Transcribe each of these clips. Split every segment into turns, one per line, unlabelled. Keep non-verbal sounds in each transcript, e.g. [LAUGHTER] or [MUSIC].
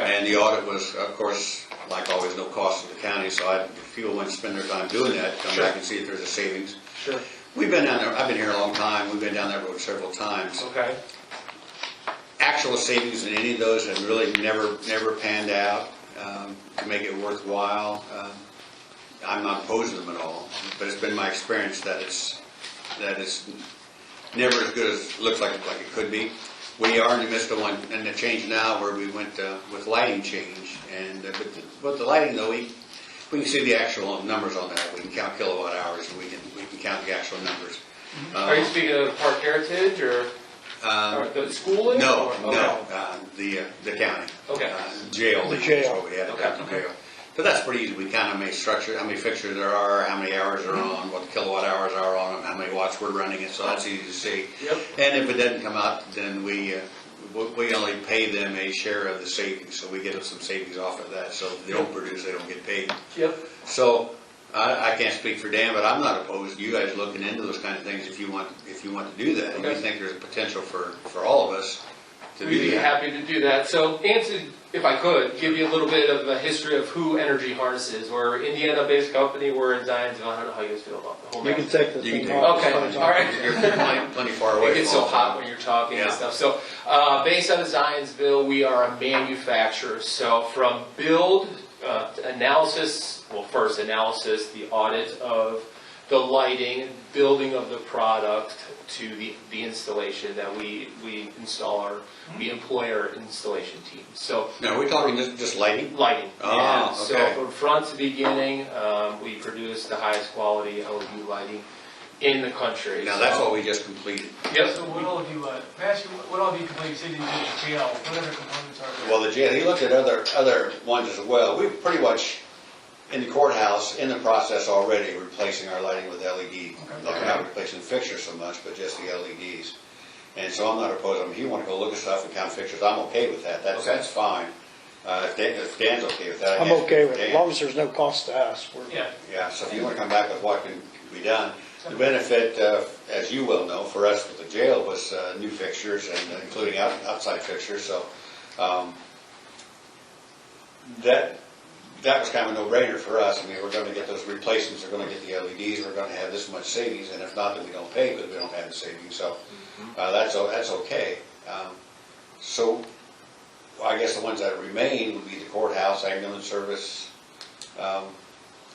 And the audit was, of course, like always, no cost to the county, so I, if people want to spend their time doing that, come back and see if there's a savings.
Sure.
We've been down there, I've been here a long time, we've been down that road several times.
Okay,
Actual savings in any of those have really never, never panned out um, to make it worthwhile. Um, I'm not opposed to them at all, but it's been my experience that it's, that it's never as good as, looks like, like it could be. We are in the midst of one, and the change now where we went uh, with lighting change, and, uh, but, the- but the lighting though, we, we can see the actual numbers on that. We can count kilowatt hours, and we can, we can count the actual numbers.
are you
Um,
speaking of Park Heritage or,
um,
or the schooling?
no,
or-
no,
okay.
uh, the, uh, the county.
Okay.
Uh, Jail.
The
is
jail.
what we had,
Okay,
that's the
okay.
jail. But that's pretty easy, we kind of may structure, how many fixtures there are, how many hours are on, what kilowatt hours are on them, how many watts we're running it, so that's easy to see.
Yep.
And if it doesn't come out, then we, uh, we- we only pay them a share of the savings, so we get some savings off of that, so if they don't produce, they don't get paid.
Yep,
So, I, I can't speak for Dan, but I'm not opposed to you guys looking into those kind of things if you want, if you want to do that. If you
Okay.
think there's a potential for, for all of us to uh,
we'd
do
be
that.
happy to do that. So Anson, if I could, give you a little bit of a history of who Energy Harness is. We're an Indiana-based company, we're in Zionsville, I don't know how you guys feel about the whole
You
mess.
can take the
You can
thing
take
off.
it.
It's
Okay,
fine.
all right.
You're plenty, plenty far away.
It gets so hot when you're talking and
Yeah.
stuff. So, uh, based out of Zionsville, we are a manufacturer. So from build, uh, analysis, well, first analysis, the audit of the lighting, building of the product to the, the installation that we, we install our, we employ our installation team. So
Mm-hmm. Now, are we talking just, just lighting?
lighting.
Oh,
yeah. So
okay.
from front to beginning, um, we produce the highest quality LED lighting in the country.
Now, that's
So-
what we just completed.
Yes,
So what all of you, uh, Matthew, what all of you complete, say that you did the jail, whatever components are there?
Well, the jail, he looked at other, other ones as well. We're pretty much in the courthouse, in the process already, replacing our lighting with LED. Like, not replacing fixtures so much, but just the LEDs. And so I'm not opposed, I mean, if you wanna go look at stuff and count fixtures, I'm okay with that, that's,
Okay.
that's fine. Uh, if Dan, if Dan's okay with that. I
I'm
guess
okay with it,
Dan-
as long as there's no cost to us. We're-
Yeah,
Yeah, so if you want to come back with what can be done. The benefit, uh, as you well know, for us with the jail was uh, new fixtures and uh, including out- outside fixtures, so um, that, that was kind of a no-brainer for us. I mean, we're going to get those replacements, we're going to get the LEDs, we're going to have this much savings, and if not, then we don't pay, but we don't have the savings, so uh, that's, o- that's okay. Um, So I guess the ones that remain would be the courthouse, ambulance service, um,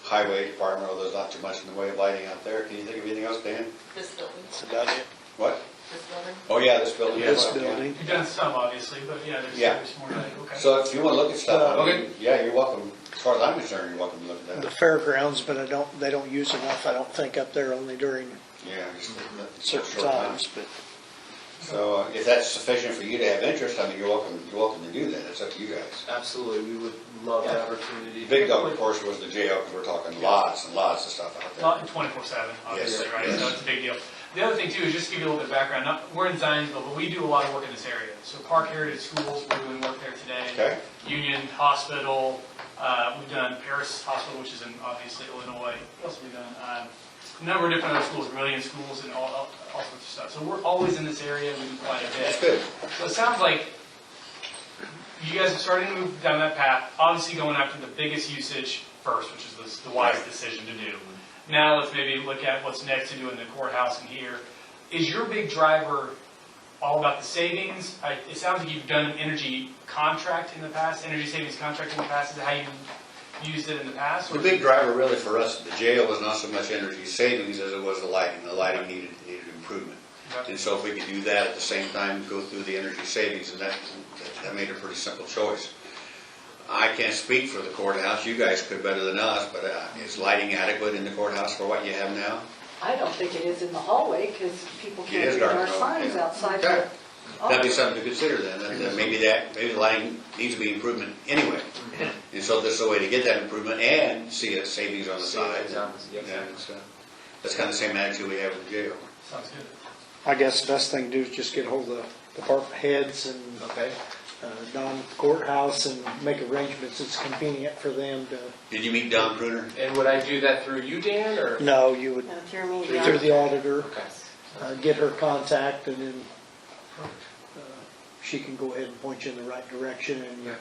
highway department, although there's not too much in the way of lighting out there. Can you think of anything else, Dan?
This building,
That's about it.
What?
this building.
Oh, yeah, this building. as
This
well, yeah.
building.
you've done some, obviously, but yeah, there's,
Yeah.
there's more, like, okay.
So if you want to look at stuff, I
Okay.
mean, yeah, you're welcome. As far as I'm concerned, you're welcome to look at
The
that.
fairgrounds, but I don't, they don't use enough, I don't think, up there, only during
Yeah. just a
certain
short time.
times, but
So uh, if that's sufficient for you to have interest, I mean, you're welcome, you're welcome to do that. It's up to you guys.
Absolutely, we would love that
Yeah.
opportunity.
The big dog, of course, was the jail, because we're talking lots and lots of stuff out there.
Not twenty-four seven, obviously,
Yes,
right,
yes.
so it's a big deal. The other thing too, is just to give you a little bit of background, not, we're in Zionsville, but we do a lot of work in this area. So Park Heritage Schools, we're doing work there today.
Okay.
Union Hospital, uh, we've done Paris Hospital, which is in, obviously, Illinois. What else have we done? Um, A number of different other schools, Vermillion schools, and all, all all sorts of stuff. So we're always in this area, we do quite a bit.
That's good.
So it sounds like you guys are starting to move down that path, obviously going after the biggest usage first, which is the- the wise
Right.
decision to do. Now let's maybe look at what's next to do in the courthouse and here. Is your big driver all about the savings? I- It sounds like you've done an energy contract in the past, energy savings contract in the past, is that how you used it in the past? or-
The big driver really for us at the jail was not so much energy savings as it was the lighting. The lighting needed, needed improvement.
Okay.
And so if we could do that at the same time, go through the energy savings, and that, that made a pretty simple choice. I can't speak for the courthouse, you guys could better than us, but uh, is lighting adequate in the courthouse for what you have now?
I don't think it is in the hallway, because people
It
can't
is
read
dark
our
though,
signs
yeah.
outside
Okay.
the
Oh.
That'd be
office.
something to consider then, that- that maybe that, maybe the lighting needs to be improvement
[LAUGHS]
anyway. And so this is a way to get that improvement and see a savings on the side.
Savings on the- yes.
Yeah, it's, uh, That's kind of the same attitude we have with the jail.
Sounds good.
I guess the best thing to do is just get hold of the department heads and
Okay.
uh, Don courthouse and make arrangements that's convenient for them to,
Did you meet Don Pruner?
And would I do that through you, Dan, or?
no, you would,
No, through me, yeah.
through the auditor,
Okay.
uh, get her contact, and then uh, she can go ahead and point you in the right direction, and